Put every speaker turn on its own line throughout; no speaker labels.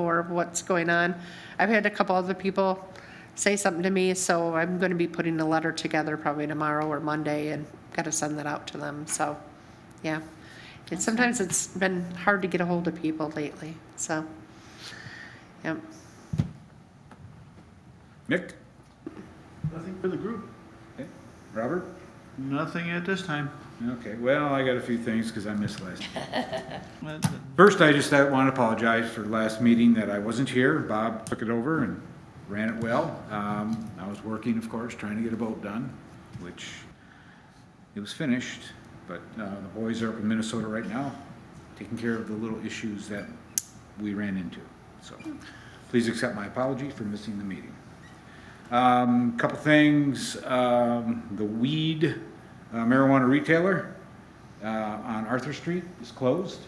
more of what's going on. I've had a couple other people say something to me, so I'm gonna be putting a letter together probably tomorrow or Monday and gotta send that out to them, so, yeah. And sometimes it's been hard to get a hold of people lately, so, yep.
Nick?
Nothing for the group.
Okay. Eh, Robert?
Nothing at this time.
Okay, well, I got a few things because I missed last.
That's it.
First, I just want to apologize for the last meeting that I wasn't here. Bob took it over and ran it well. Um, I was working, of course, trying to get a boat done, which it was finished. But uh, the boys are up in Minnesota right now, taking care of the little issues that we ran into. So please accept my apology for missing the meeting. Um, couple things, um, the weed uh, marijuana retailer, uh, on Arthur Street is closed.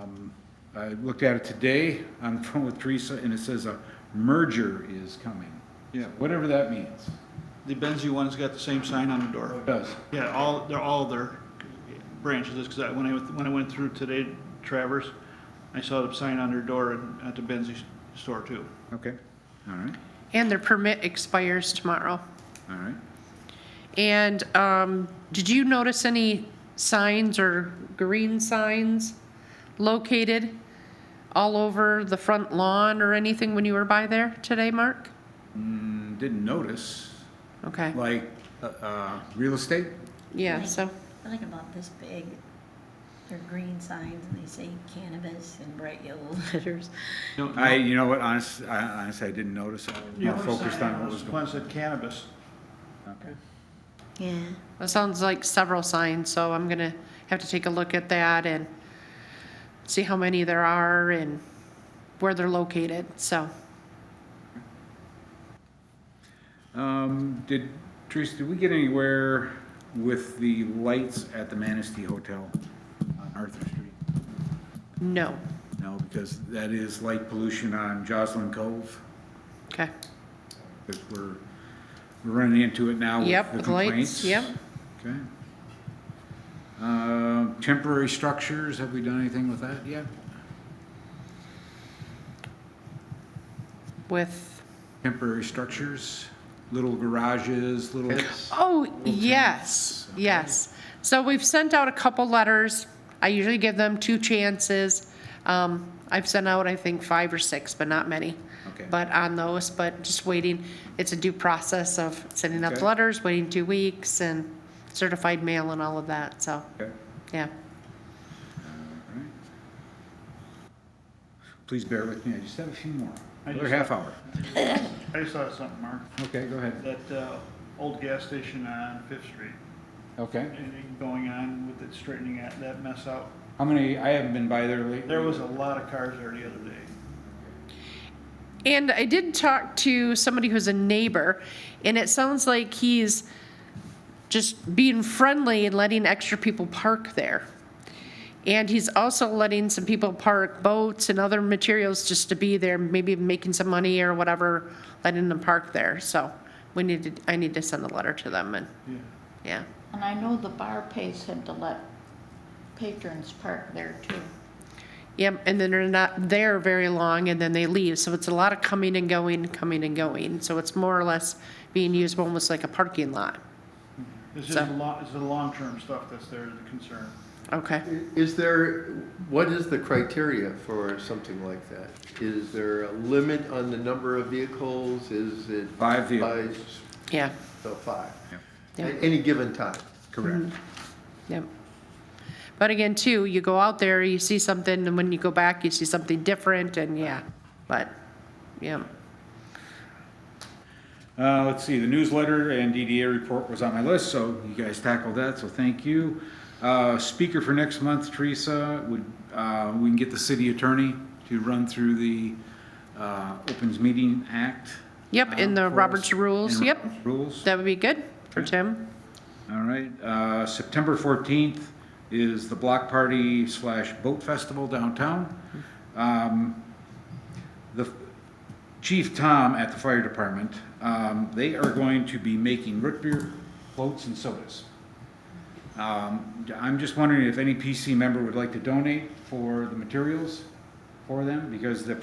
Um, I looked at it today on the phone with Teresa and it says a merger is coming.
Yeah.
Whatever that means.
The Benzie one's got the same sign on the door.
It does.
Yeah, all, they're all their branches, because I, when I, when I went through today, Travers, I saw the sign on their door and at the Benzie store too.
Okay, all right,
And their permit expires tomorrow.
all right.
And um, did you notice any signs or green signs located all over the front lawn or anything when you were by there today, Mark?
Mm, Didn't notice,
Okay,
like, uh, uh, real estate?
yeah, so,
They're like about this big. They're green signs and they say cannabis in bright yellow letters.
No,
I,
no.
you know what, honest, I honestly, I didn't notice. I was more focused on what was going.
One said cannabis.
Okay.
Yeah.
that sounds like several signs, so I'm gonna have to take a look at that and see how many there are and where they're located, so.
Um, did, Teresa, did we get anywhere with the lights at the Manistee Hotel on Arthur Street?
No,
No, because that is light pollution on Jocelyn Cove,
okay,
because we're, we're running into it now with
Yep,
the
with lights,
complaints.
yep.
Okay. Um, temporary structures, have we done anything with that yet?
with,
Temporary structures, little garages, little.
Oh, yes,
Okay.
yes. So we've sent out a couple letters. I usually give them two chances. Um, I've sent out, I think, five or six, but not many.
Okay.
But on those, but just waiting. It's a due process of sending out the
Okay.
letters, waiting two weeks and certified mail and all of that, so,
Okay.
yeah.
Alright. Please bear with me, I just have a few more,
I
another
just-
half hour.
I saw something, Mark,
Okay, go ahead.
that, uh, old gas station on Fifth Street,
Okay,
anything going on with it straightening that, that mess out.
how many, I haven't been by there lately.
There was a lot of cars there the other day.
And I did talk to somebody who's a neighbor, and it sounds like he's just being friendly and letting extra people park there. And he's also letting some people park boats and other materials just to be there, maybe making some money or whatever, letting them park there. So we need to, I need to send a letter to them and,
Yeah.
yeah.
And I know the bar pays him to let patrons park there too.
Yep, and then they're not there very long and then they leave. So it's a lot of coming and going, coming and going. So it's more or less being used almost like a parking lot.
It's just
So-
the long, it's the long-term stuff that's there, the concern.
Okay.
Is there, what is the criteria for something like that? Is there a limit on the number of vehicles? Is it?
Five vehicles.
by-
Yeah,
So five,
Yeah.
at any given time.
Correct.
yep. But again, too, you go out there, you see something, and when you go back, you see something different, and yeah, but, yeah.
Uh, let's see, the newsletter and DDA report was on my list, so you guys tackled that, so thank you. Uh, speaker for next month, Teresa, would, uh, we can get the city attorney to run through the, uh, Opens Meeting Act.
Yep, in
uh,
the
for us.
Roberts rules,
In
yep.
Roberts Rules,
That would be good for Tim.
all right. Uh, September fourteenth is the block party slash boat festival downtown. Um, the Chief Tom at the fire department, um, they are going to be making root beer floats and sodas. Um, I'm just wondering if any PC member would like to donate for the materials for them, because the